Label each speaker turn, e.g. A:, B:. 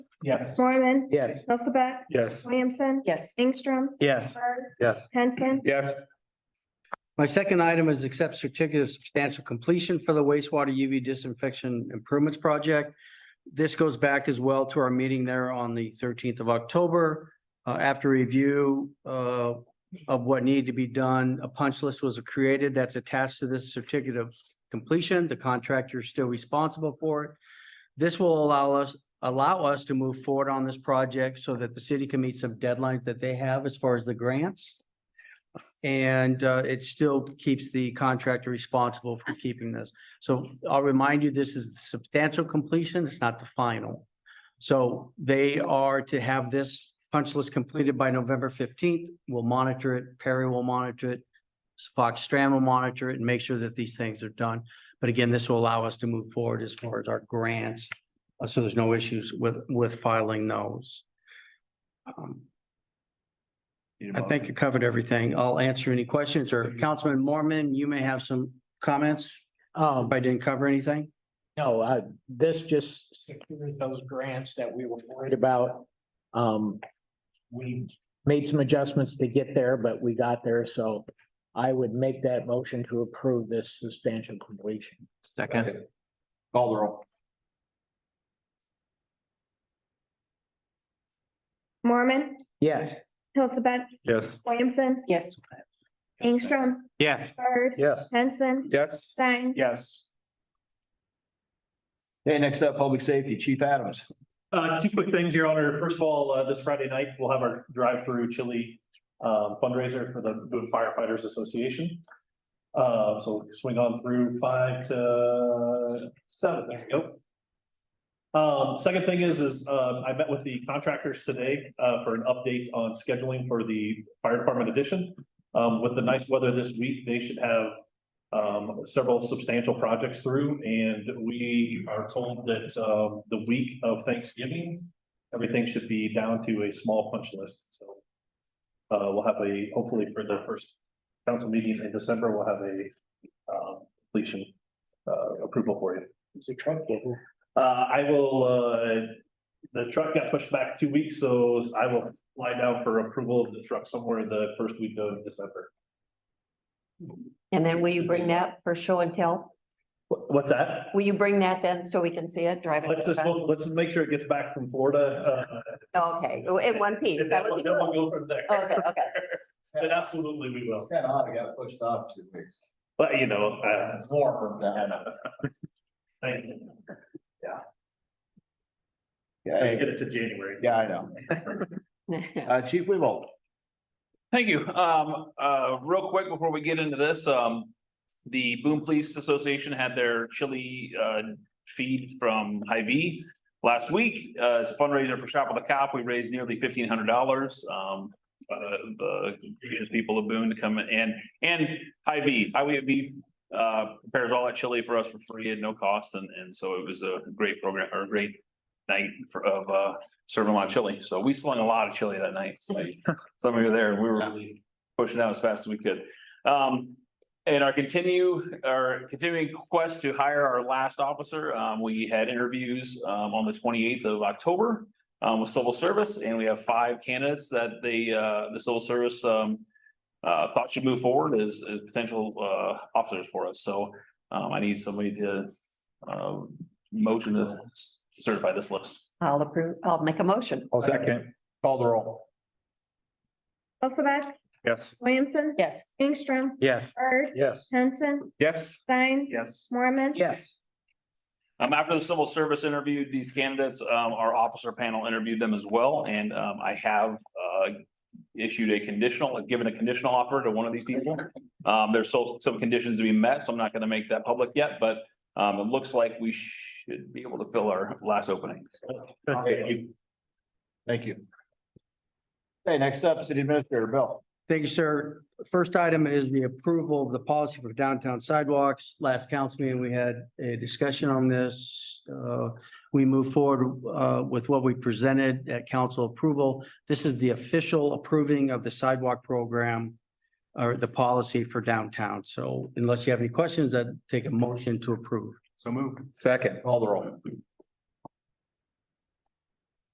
A: Yes.
B: Mormon.
C: Yes.
B: Hilsaback.
A: Yes.
B: Williamson.
D: Yes.
B: Ingstrom.
A: Yes.
B: Bird.
A: Yes.
B: Henson.
A: Yes.
C: My second item is accept certificate of substantial completion for the wastewater UV disinfection improvements project. This goes back as well to our meeting there on the thirteenth of October. Uh, after review, uh, of what needed to be done, a punch list was created that's attached to this certificate of completion. The contractor is still responsible for it. This will allow us, allow us to move forward on this project so that the city can meet some deadlines that they have as far as the grants. And uh, it still keeps the contractor responsible for keeping this. So I'll remind you, this is substantial completion. It's not the final. So they are to have this punch list completed by November fifteenth. We'll monitor it. Perry will monitor it. Fox Strand will monitor it and make sure that these things are done. But again, this will allow us to move forward as far as our grants. uh, So there's no issues with, with filing those. Um, I think you covered everything. I'll answer any questions or Councilman Mormon, you may have some comments
E: Um,
C: if I didn't cover anything.
E: no, uh, this just secured those grants that we were worried about. Um, we made some adjustments to get there, but we got there, so I would make that motion to approve this substantial completion.
F: Second. Call the roll.
B: Mormon.
E: Yes.
B: Hilsaback.
A: Yes.
B: Williamson.
D: Yes.
B: Ingstrom.
C: Yes.
B: Bird.
A: Yes.
B: Henson.
A: Yes.
B: Stein.
A: Yes.
F: Okay, next up, Public Safety, Chief Adams.
G: Uh, two quick things, Your Honor. First of all, uh, this Friday night, we'll have our drive-through chili uh, fundraiser for the Boone Firefighters Association. Uh, so swing on through five to seven, there you go. Um, second thing is, is, uh, I met with the contractors today, uh, for an update on scheduling for the fire department addition. Um, with the nice weather this week, they should have, um, several substantial projects through, and we are told that, um, the week of Thanksgiving, everything should be down to a small punch list, so. Uh, we'll have a, hopefully for the first council meeting in December, we'll have a, um, completion, uh, approval for you.
E: It's a truck getting.
G: Uh, I will, uh, the truck got pushed back two weeks, so I will fly down for approval of the truck somewhere the first week of December.
D: And then will you bring that for show and tell?
G: Wha- What's that?
D: Will you bring that then so we can see it drive? it?
G: Let's just, look- let's just make sure it gets back from Florida, uh,
D: Okay, in one piece.
G: If that
D: That would
G: one,
D: be
G: that one
D: cool.
G: go from there.
D: Okay, okay.
G: Then absolutely we will,
F: Kind of odd, I got pushed off two weeks.
G: but you know, uh,
F: It's warmer
G: I
F: than.
G: know. Thank you.
F: Yeah,
G: Get it to January.
F: yeah, I know. Uh, Chief Weaver.
H: Thank you. Um, uh, real quick before we get into this, um, the Boone Police Association had their chili, uh, feed from Hy-Vee last week. Uh, as a fundraiser for Shop with a Cop, we raised nearly fifteen hundred dollars, um, uh, the gracious people of Boone to come and, and Hy-Vee, Hy-Vee uh, prepares all that chili for us for free at no cost, and, and so it was a great program, or a great night for, of, uh, serving a lot of chili. So we slung a lot of chili that night, so some of you were there, we were really pushing out as fast as we could. Um, and our continue, our continuing quest to hire our last officer, um, we had interviews, um, on the twenty-eighth of October. um, with civil service, and we have five candidates that they, uh, the civil service, um. Uh, thought should move forward as, as potential, uh, officers for us, so, um, I need somebody to, um, motion to certify this list.
D: I'll approve, I'll make a motion.
F: I'll second. Call the roll.
B: Hilsaback.
A: Yes.
B: Williamson.
D: Yes.
B: Ingstrom.
C: Yes.
B: Bird.
A: Yes.
B: Henson.
A: Yes.
B: Stein.
H: Yes.
B: Mormon.
C: Yes.
H: Um, after the civil service interviewed these candidates, um, our officer panel interviewed them as well, and, um, I have, uh. Issued a conditional, given a conditional offer to one of these people. Um, there's so, some conditions to be met, so I'm not gonna make that public yet, but, um, it looks like we should be able to fill our last opening.
F: Thank you. Okay, next up, City Administrator Bill.
C: Thank you, sir. First item is the approval of the policy for downtown sidewalks. Last council meeting, we had a discussion on this. Uh, we move forward, uh, with what we presented at council approval. This is the official approving of the sidewalk program or the policy for downtown. So unless you have any questions, I'd take a motion to approve.
F: So moved. Second. Call the roll.